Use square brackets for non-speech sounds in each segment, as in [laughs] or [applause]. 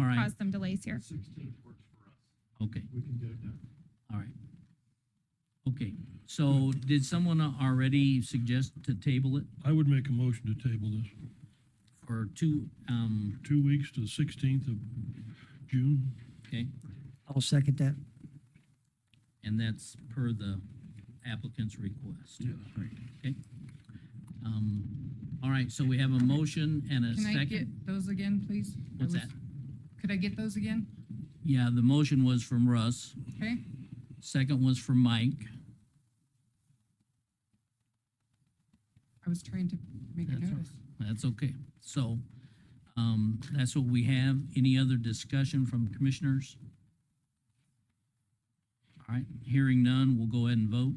caused some delays here. Sixteenth works for us. Okay, We can get it done. all right. Okay, so did someone already suggest to table it I would make a motion to table this, for two, um, two weeks to the 16th of June. okay? I'll second that. And that's per the applicant's request. Okay. Um, all right, so we have a motion and a Can I second. get those again, please? I What's was- that? Could I get those again? Yeah, the motion was from Russ, Okay, second was from Mike. I was trying to make a That's all right. notice. That's okay. So, um, that's what we have. Any other discussion from commissioners? All right, hearing none, we'll go ahead and vote.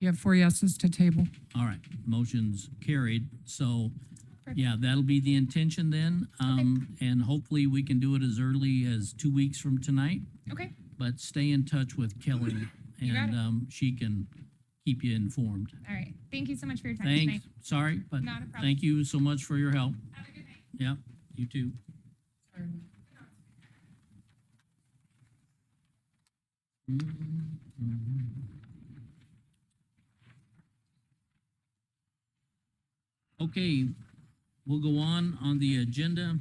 You have four yeses to table. All right, motion's carried. So, yeah, that'll be the intention then. Um, and hopefully we can do it as early as two weeks from tonight. Okay, But stay in touch with Kelly You got and, it. um, she can keep you informed. all right. Thank you so much for your time tonight. Thanks, sorry, but Not a problem. thank you so much for your help. Have a good Yep, night. you too. Okay, we'll go on on the agenda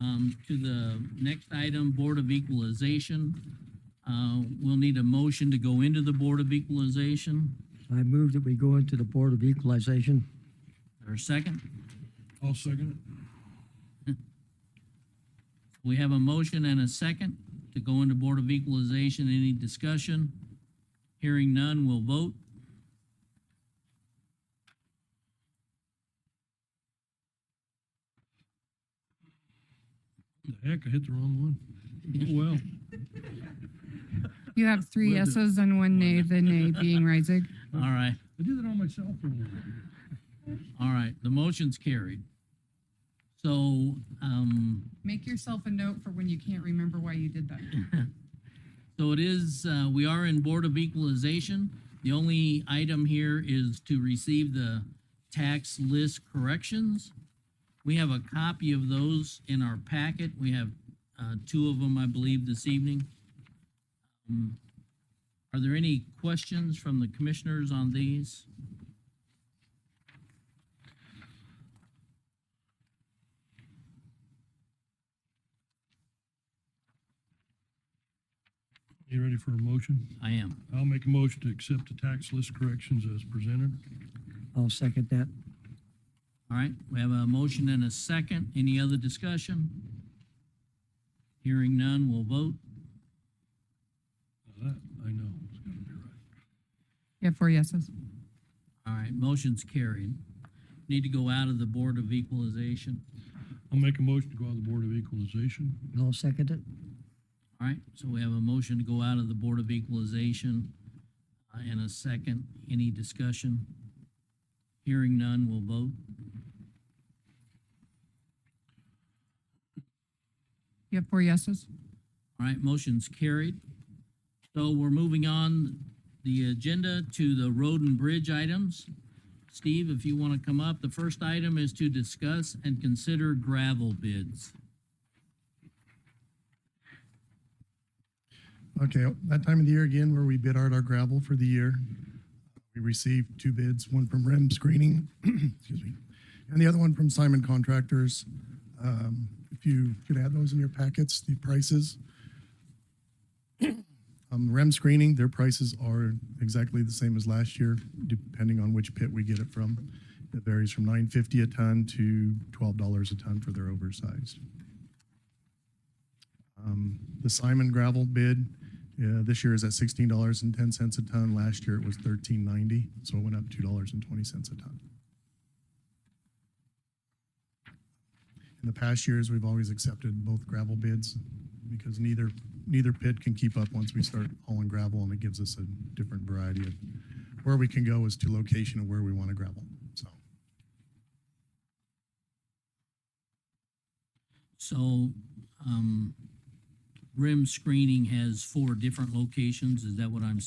um, to the next item, Board of Equalization. Uh, We'll need a motion to go into the Board of Equalization. I move that we go into the Board of Equalization. Or a second? I'll second We have a motion and a second to go into Board of Equalization. Any discussion? Hearing none, we'll vote. it. The heck, I hit the wrong one. Oh, Well, You have three Where the- yeses and one nay, [laughs] the nay being Reisig. All right, I did it on my cell phone. all right, the motion's carried. So, um, Make yourself a note for when you can't remember why you did that. so it is, uh, we are in Board of Equalization. The only item here is to receive the tax list corrections. We have a copy of those in our packet. We have, uh, two of them, I believe, this evening. Um, Are there any questions from the commissioners on these? You ready for a motion? I am. I'll make a motion to accept the tax list corrections as presented. I'll second that. All right, we have a motion and a second. Any other discussion? Hearing none, we'll vote. Now That, I know, it's gotta be right. You have four yeses. All right, motion's carried. Need to go out of the Board of Equalization. I'll make a motion to go on the Board of Equalization. I'll second it. All right, so we have a motion to go out of the Board of Equalization uh, and a second. Any discussion? Hearing none, we'll vote. You have four yeses. All right, motion's carried. So we're moving on the agenda to the road and bridge items. Steve, if you want to come up, the first item is to discuss and consider gravel bids. Okay, that time of the year again where we bid out our gravel for the year. We received two bids, one from REM Screening, [clears throat] excuse me, and the other one from Simon Contractors. Um, If you could add those in your packets, the prices. [clears throat] Um, REM Screening, their prices are exactly the same as last year, depending on which pit we get it from. It varies from nine fifty a ton to twelve dollars a ton for their oversized. Um, The Simon gravel bid, uh, this year is at sixteen dollars and ten cents a ton. Last year it was thirteen ninety, so it went up two dollars and twenty cents a ton. In the past years, we've always accepted both gravel bids because neither, neither pit can keep up once we start hauling gravel and it gives us a different variety of where we can go as to location of where we want to gravel, so. So, um, rim screening has four different locations, is that what I'm